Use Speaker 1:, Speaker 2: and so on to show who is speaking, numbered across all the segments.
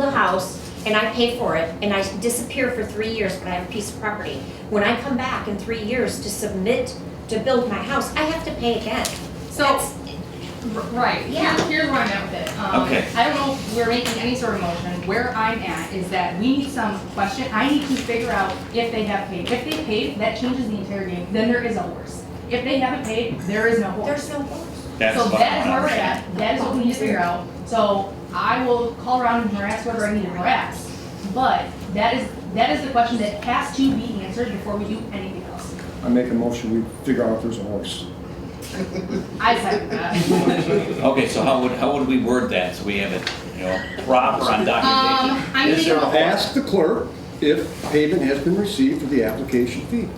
Speaker 1: house and I pay for it and I disappear for three years, but I have a piece of property. When I come back in three years to submit to build my house, I have to pay again.
Speaker 2: So,
Speaker 1: That's,
Speaker 2: r- right,
Speaker 1: Yeah.
Speaker 2: here's, here's where I'm at with it. Um,
Speaker 3: Okay.
Speaker 2: I don't know if we're making any sort of motion. Where I'm at is that we need some question, I need to figure out if they have paid. If they paid, that changes the entire game, then there is a horse. If they haven't paid, there is no horse.
Speaker 1: there's no rules.
Speaker 3: That's
Speaker 2: So
Speaker 3: what
Speaker 2: that is where
Speaker 3: I'm
Speaker 2: we're at, that is what we need to figure out. So I will call around and harass whoever I need to harass. But that is, that is the question that has to be answered before we do anything else.
Speaker 4: I make a motion, we figure out if there's a horse.
Speaker 2: I second that.
Speaker 3: Okay, so how would, how would we word that, so we have it, you know, proper on
Speaker 2: Um,
Speaker 3: documentation?
Speaker 2: I'm
Speaker 4: Is there-
Speaker 2: thinking,
Speaker 4: Ask the clerk if payment has been received for the application fee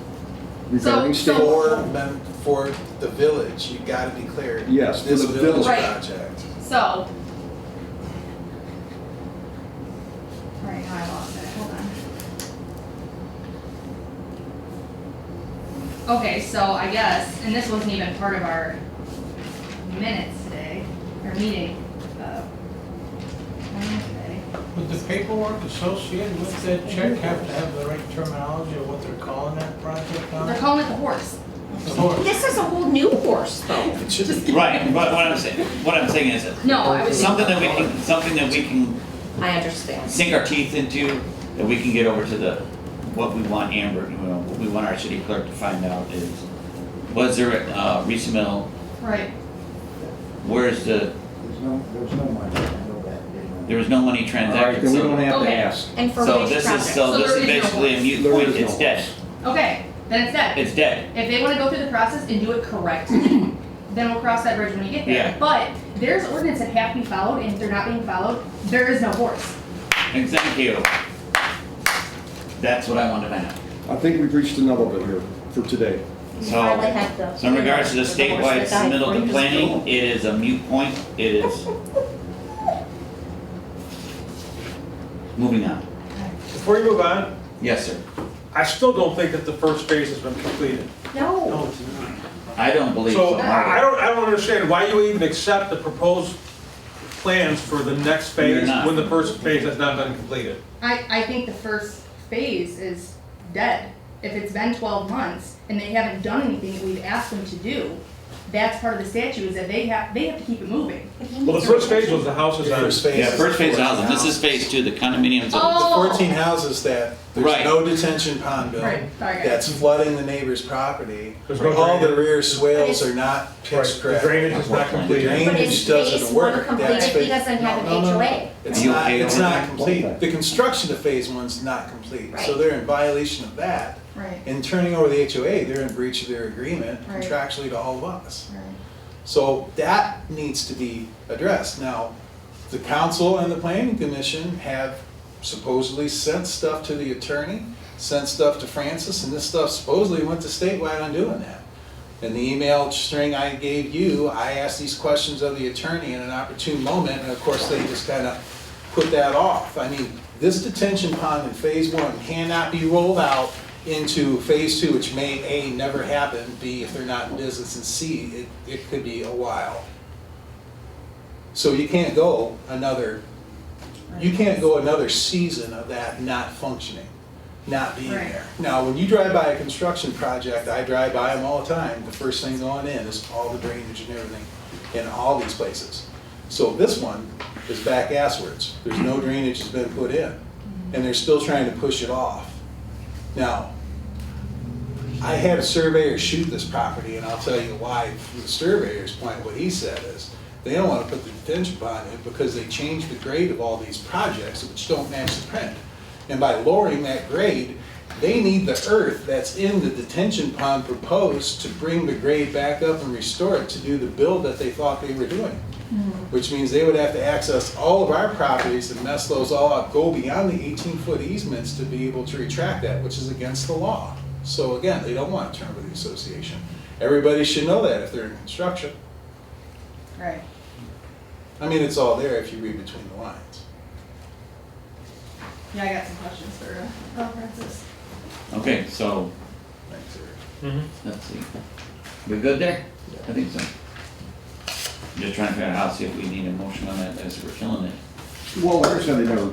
Speaker 4: regarding
Speaker 2: So-
Speaker 4: state.
Speaker 2: so-
Speaker 5: For, mem- for the village, you gotta declare.
Speaker 4: Yes, for the
Speaker 5: This village
Speaker 4: village.
Speaker 2: Right.
Speaker 5: project.
Speaker 2: so. Right, now I lost it, hold on. Okay, so I guess, and this wasn't even part of our minutes today, or meeting, uh, Wednesday.
Speaker 6: Would the paperwork associated with that check have to have the right terminology of what they're calling that project
Speaker 2: They're
Speaker 6: on?
Speaker 2: calling it the horse.
Speaker 6: The horse.
Speaker 1: This is a whole new horse though.
Speaker 5: It should be.
Speaker 3: Right, but what I'm saying, what I'm saying is, that
Speaker 2: No, I was.
Speaker 3: something that we can, something that we can
Speaker 1: I understand.
Speaker 3: sink our teeth into, that we can get over to the, what we want Amber, you know, what we want our city clerk to find out is, was there a uh, resubmit,
Speaker 2: Right,
Speaker 3: where's the,
Speaker 7: There's no, there's no money, I know that.
Speaker 3: there was no money
Speaker 4: All right,
Speaker 3: transacted,
Speaker 4: then we
Speaker 3: so.
Speaker 4: don't have to
Speaker 2: Okay.
Speaker 4: ask.
Speaker 1: And for
Speaker 3: So
Speaker 1: which
Speaker 3: this is,
Speaker 1: project?
Speaker 3: so
Speaker 2: So
Speaker 3: this
Speaker 2: there
Speaker 3: is
Speaker 2: is no
Speaker 3: basically a
Speaker 2: horse.
Speaker 3: mute
Speaker 4: There
Speaker 3: point,
Speaker 4: is no
Speaker 3: it's dead,
Speaker 4: horse.
Speaker 2: okay, then it's that.
Speaker 3: it's dead.
Speaker 2: If they wanna go through the process and do it correctly, then we'll cross that bridge when we get there.
Speaker 3: Yeah.
Speaker 2: But there's ordinance that have to be followed, and if they're not being followed, there is no horse.
Speaker 3: And thank you. That's what I wanted to know.
Speaker 4: I think we've reached another bit here for today.
Speaker 1: You
Speaker 3: So-
Speaker 1: finally have the-
Speaker 3: So in regards to the statewide
Speaker 1: horse that died
Speaker 3: submittal
Speaker 1: forty
Speaker 3: to
Speaker 1: years ago.
Speaker 3: planning, it is a mute point, it is. Moving on.
Speaker 8: Before you move on,
Speaker 3: Yes, sir.
Speaker 8: I still don't think that the first phase has been completed.
Speaker 1: No,
Speaker 3: I don't believe so.
Speaker 8: So I I don't, I don't understand why you even accept the proposed plans for the next
Speaker 3: You're
Speaker 8: phase
Speaker 3: not.
Speaker 8: when the first phase has not been completed.
Speaker 2: I, I think the first phase is dead. If it's been twelve months and they haven't done anything that we've asked them to do, that's part of the statute is that they have, they have to keep it moving.
Speaker 8: Well, the first phase was the houses on.
Speaker 5: First phase
Speaker 3: Yeah,
Speaker 5: is
Speaker 3: first phase
Speaker 5: the
Speaker 3: housing, this is phase two, the condominiums.
Speaker 2: Oh.
Speaker 3: of-
Speaker 5: The fourteen houses that,
Speaker 3: Right.
Speaker 5: there's no detention pond bill.
Speaker 2: Right, sorry, guys.
Speaker 5: That's flooding the neighbor's property.
Speaker 8: There's no
Speaker 5: All the
Speaker 8: drainage.
Speaker 5: rear swales are not pitch
Speaker 8: The
Speaker 5: correct.
Speaker 8: drainage is not
Speaker 5: The
Speaker 8: completed.
Speaker 1: but it's
Speaker 5: drainage
Speaker 1: phase
Speaker 5: doesn't
Speaker 1: one
Speaker 5: work.
Speaker 1: completed,
Speaker 5: That's
Speaker 1: he
Speaker 5: phase.
Speaker 1: doesn't have an
Speaker 5: No, no, no.
Speaker 1: HOA.
Speaker 5: It's
Speaker 3: Are you
Speaker 5: not,
Speaker 3: okay
Speaker 5: it's
Speaker 3: with
Speaker 5: not
Speaker 3: that?
Speaker 5: complete. The construction of phase one's not complete, so
Speaker 1: Right.
Speaker 5: they're in violation of that.
Speaker 2: Right.
Speaker 5: In turning over the HOA, they're in breach of their agreement
Speaker 2: Right.
Speaker 5: contractually to all of us.
Speaker 2: Right.
Speaker 5: So that needs to be addressed. Now, the council and the planning commission have supposedly sent stuff to the attorney, sent stuff to Francis, and this stuff supposedly went to statewide on doing that. And the email string I gave you, I asked these questions of the attorney in an opportune moment, and of course, they just kind of put that off. I mean, this detention pond in phase one cannot be rolled out into phase two, which may, A, never happen, B, if they're not in business, and C, it, it could be a while. So you can't go another, you can't go another season of that not functioning, not being
Speaker 2: Right.
Speaker 5: there. Now, when you drive by a construction project, I drive by them all the time, the first thing going in is all the drainage and everything in all these places. So this one is back asswards, there's no drainage has been put in, and they're still trying to push it off. Now, I had a surveyor shoot this property, and I'll tell you why, from the surveyor's point, what he said is, they don't wanna put the detention pond in because they changed the grade of all these projects, which don't match the print. And by lowering that grade, they need the earth that's in the detention pond proposed to bring the grade back up and restore it to do the build that they thought they were doing. Which means they would have to access all of our properties and mess those all up, go beyond the eighteen-foot easements to be able to retract that, which is against the law. So again, they don't want to turn over the association. Everybody should know that if they're in construction.
Speaker 2: Right.
Speaker 5: I mean, it's all there if you read between the lines.
Speaker 2: Yeah, I got some questions for, uh, oh, Francis.
Speaker 3: Okay, so,
Speaker 5: Thanks, Eric.
Speaker 3: let's see. We good there? I think so. Just trying to figure out how, see if we need a motion on that, as we're killing it.
Speaker 7: Well, like I said, they never